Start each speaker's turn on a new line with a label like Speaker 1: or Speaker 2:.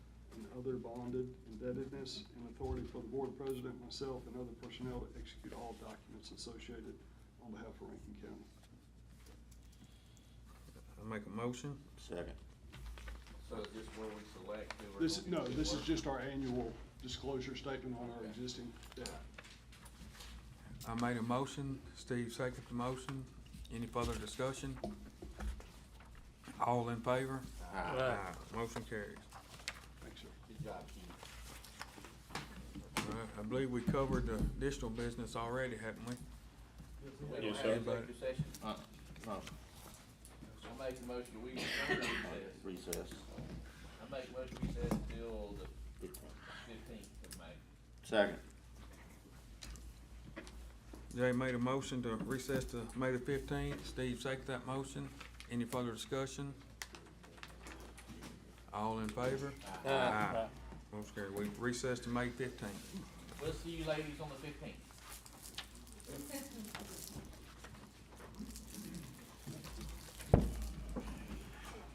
Speaker 1: other bonded indebtedness, and authority for the board president, myself, and other personnel to execute all documents associated on behalf of Rankin County.
Speaker 2: I make a motion.
Speaker 3: Second.
Speaker 4: So is this where we select who we're?
Speaker 1: This, is
Speaker 4: gonna
Speaker 1: no,
Speaker 4: be
Speaker 1: this is
Speaker 4: working?
Speaker 1: just our annual disclosure statement on our
Speaker 4: Okay.
Speaker 1: existing debt.
Speaker 2: I made a motion. Steve seconded the motion. Any further discussion? All in favor? Aye. Motion carries.
Speaker 1: Thanks, sir.
Speaker 4: Good job, Keith.
Speaker 2: All right, I believe we covered the additional business already, haven't we?
Speaker 3: Yes,
Speaker 4: Wait,
Speaker 3: sir.
Speaker 4: executive session?
Speaker 3: Uh, No,
Speaker 4: I make a motion, we adjourn recess.
Speaker 3: recess.
Speaker 4: I make a motion, we recess till the
Speaker 3: Fifteen.
Speaker 4: fifteenth of May.
Speaker 3: Second.
Speaker 2: Jay made a motion to recess to May the fifteenth. Steve seconded that motion. Any further discussion? All in favor? Aye. Motion carries. We recess to May fifteenth.
Speaker 4: We'll see you ladies on the fifteenth.